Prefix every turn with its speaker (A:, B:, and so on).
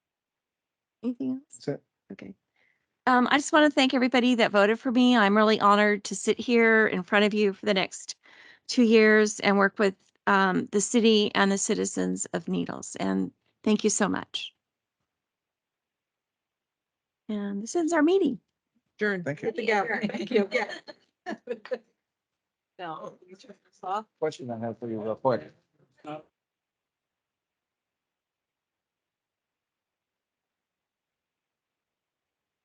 A: Anything else?
B: That's it.
A: Okay. Um, I just want to thank everybody that voted for me. I'm really honored to sit here in front of you for the next two years and work with um, the city and the citizens of Needles. And thank you so much. And this ends our meeting.
C: Adjourned.
B: Thank you.
C: Yeah, thank you, yeah. Oh, No.
D: Question I have for you real quick.